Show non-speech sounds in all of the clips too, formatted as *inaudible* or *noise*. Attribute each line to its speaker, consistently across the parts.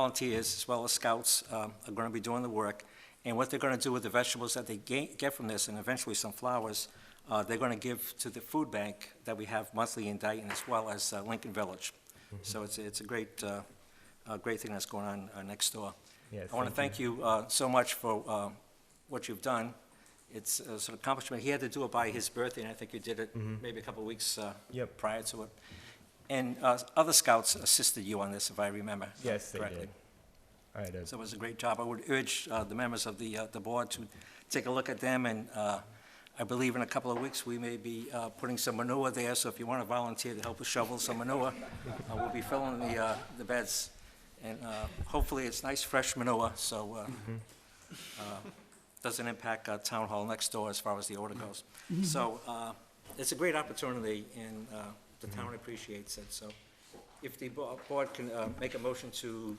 Speaker 1: volunteers, as well as scouts, um, are going to be doing the work. And what they're going to do with the vegetables that they ga- get from this, and eventually some flowers, uh, they're going to give to the food bank that we have monthly in Dayton, as well as uh, Lincoln Village. So it's, it's a great, uh, a great thing that's going on uh, next door.
Speaker 2: Yeah,
Speaker 1: I want to
Speaker 2: thank
Speaker 1: thank you uh, so much for uh, what you've done. It's uh, it's an accomplishment. He had to do it by his birthday, and I think you did it maybe a couple of weeks uh,
Speaker 2: Mm-hmm. Yep.
Speaker 1: prior to it. And uh, other scouts assisted you on this, if I remember
Speaker 2: Yes, they
Speaker 1: correctly.
Speaker 2: did. All right, uh,
Speaker 1: So it was a great job. I would urge uh, the members of the, uh, the board to take a look at them, and uh, I believe in a couple of weeks, we may be uh, putting some manure there, so if you want to volunteer to help us shovel some manure, uh, we'll be filling the, uh, the beds, and uh, hopefully it's nice, fresh manure, so uh, uh, doesn't impact our town hall next door as far as the order goes. So uh, it's a great opportunity, and uh, the town appreciates it, so if the bo- board can uh, make a motion to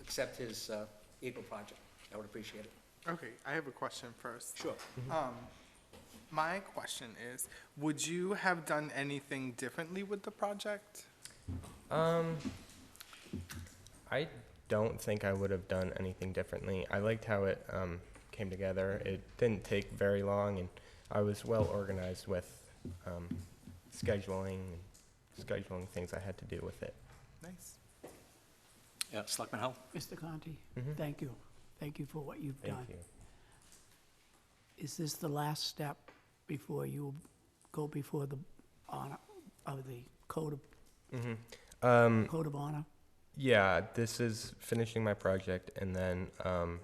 Speaker 1: accept his uh, Eagle project. I would appreciate it.
Speaker 3: Okay, I have a question first.
Speaker 1: Sure.
Speaker 3: Um, my question is, would you have done anything differently with the project?
Speaker 2: Um, I don't think I would have done anything differently. I liked how it um, came together. It didn't take very long, and I was well organized with um, scheduling and scheduling things I had to do with it.
Speaker 3: Nice.
Speaker 1: Yeah, Selectman Hull?
Speaker 4: Mr. Conti,
Speaker 2: Mhm.
Speaker 4: thank you. Thank you for what you've
Speaker 2: Thank
Speaker 4: done.
Speaker 2: you.
Speaker 4: Is this the last step before you go before the honor, of the code of,
Speaker 2: Um,
Speaker 4: code of honor?
Speaker 2: yeah, this is finishing my project, and then um,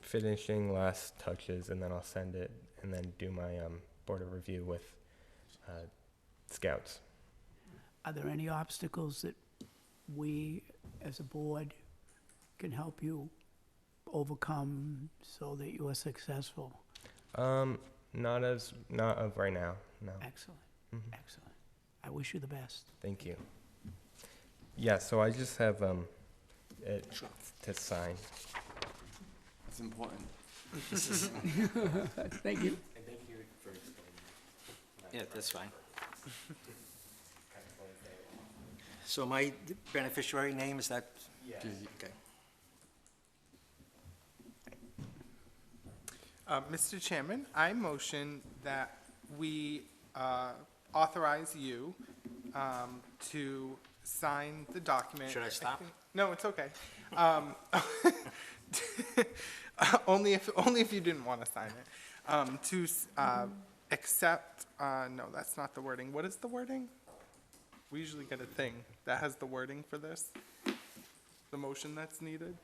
Speaker 2: finishing last touches, and then I'll send it, and then do my um, board of review with uh, scouts.
Speaker 4: Are there any obstacles that we, as a board, can help you overcome so that you are successful?
Speaker 2: Um, not as not of right now. No,
Speaker 4: Excellent,
Speaker 2: Mhm.
Speaker 4: excellent. I wish you the best.
Speaker 2: thank you. Yeah, so I just have um, it to sign.
Speaker 5: It's important.
Speaker 4: Thank you.
Speaker 1: Yeah, that's fine. *laughs* So my beneficiary name, is that? Yeah. Okay.
Speaker 3: Uh, Mr. Chairman, I motion that we, uh, authorize you, um, to sign the document.
Speaker 1: Should I stop?
Speaker 3: think- No, it's okay. Um, *laughs* only if, only if you didn't want to sign it. Um, to, s- uh, accept, uh, no, that's not the wording. What is the wording? We usually get a thing that has the wording for this, the motion that's needed.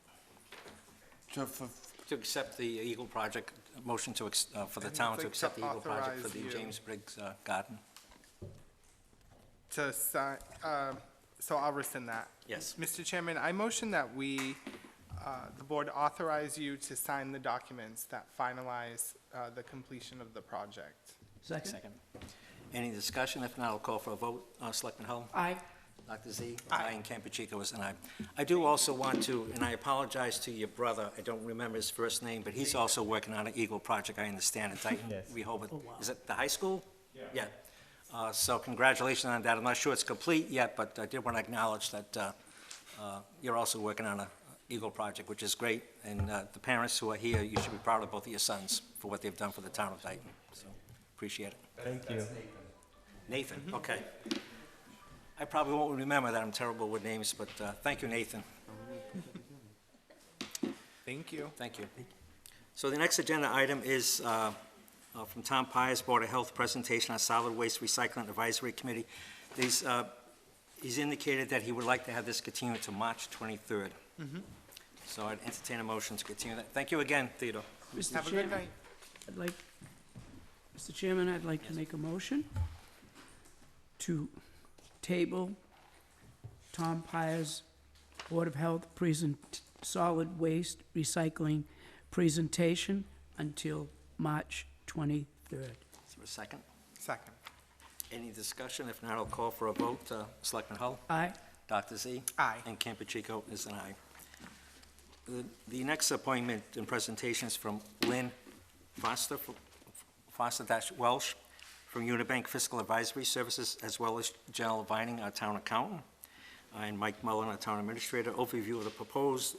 Speaker 5: To, for,
Speaker 1: To accept the Eagle project, motion to, ex- uh, for the
Speaker 3: And
Speaker 1: town
Speaker 3: it's
Speaker 1: to
Speaker 3: like
Speaker 1: accept
Speaker 3: to
Speaker 1: the Eagle project for
Speaker 3: authorize
Speaker 1: the
Speaker 3: you.
Speaker 1: James Briggs uh, Garden.
Speaker 3: To sign, uh, so I'll rescind that.
Speaker 1: Yes.
Speaker 3: Mr. Chairman, I motion that we, uh, the board authorize you to sign the documents that finalize, uh, the completion of the project.
Speaker 4: Second?
Speaker 1: Any discussion? If not, I'll call for a vote. Uh, Selectman Hull?
Speaker 4: Aye.
Speaker 1: Dr. Z? Aye. And Campuchico was an aye. I do also want to, and I apologize to your brother, I don't remember his first name, but he's also working on an Eagle project, I understand, in Dayton,
Speaker 2: Yes.
Speaker 1: Rehoboth.
Speaker 4: Oh, wow.
Speaker 1: Is it the high school? Yeah. Yeah. Uh, So congratulations on that. I'm not sure it's complete yet, but I did want to acknowledge that uh, uh, you're also working on an Eagle project, which is great. And uh, the parents who are here, you should be proud of both of your sons for what they've done for the town of Dayton. So appreciate it.
Speaker 2: Thank you.
Speaker 1: Nathan, okay. I probably won't remember that, I'm terrible with names, but uh, thank you, Nathan,
Speaker 3: Thank you.
Speaker 1: thank you. So the next agenda item is uh, uh, from Tom Pires, Board of Health Presentation on Solid Waste Recycling Advisory Committee. These, uh, He's indicated that he would like to have this continued to March 23rd. So I'd entertain a motion to continue that. Thank you again, Theodore.
Speaker 3: Have
Speaker 4: Mr.
Speaker 3: a good
Speaker 4: Chairman,
Speaker 3: night.
Speaker 4: I'd like, Mr. Chairman, I'd like to make a motion to table Tom Pires Board of Health present, solid waste recycling presentation until March twenty-third.
Speaker 1: Is there a second?
Speaker 3: Second.
Speaker 1: Any discussion? If not, I'll call for a vote. Uh, Selectman Hull?
Speaker 4: Aye.
Speaker 1: Dr. Z?
Speaker 3: Aye.
Speaker 1: And Campuchico is an aye. The- The next appointment and presentation is from Lynn Foster, Foster dash Welsh, from Unibank Fiscal Advisory Services, as well as Janelle Vining, our town accountant. and Mike Mullin, our town administrator, overview of the proposed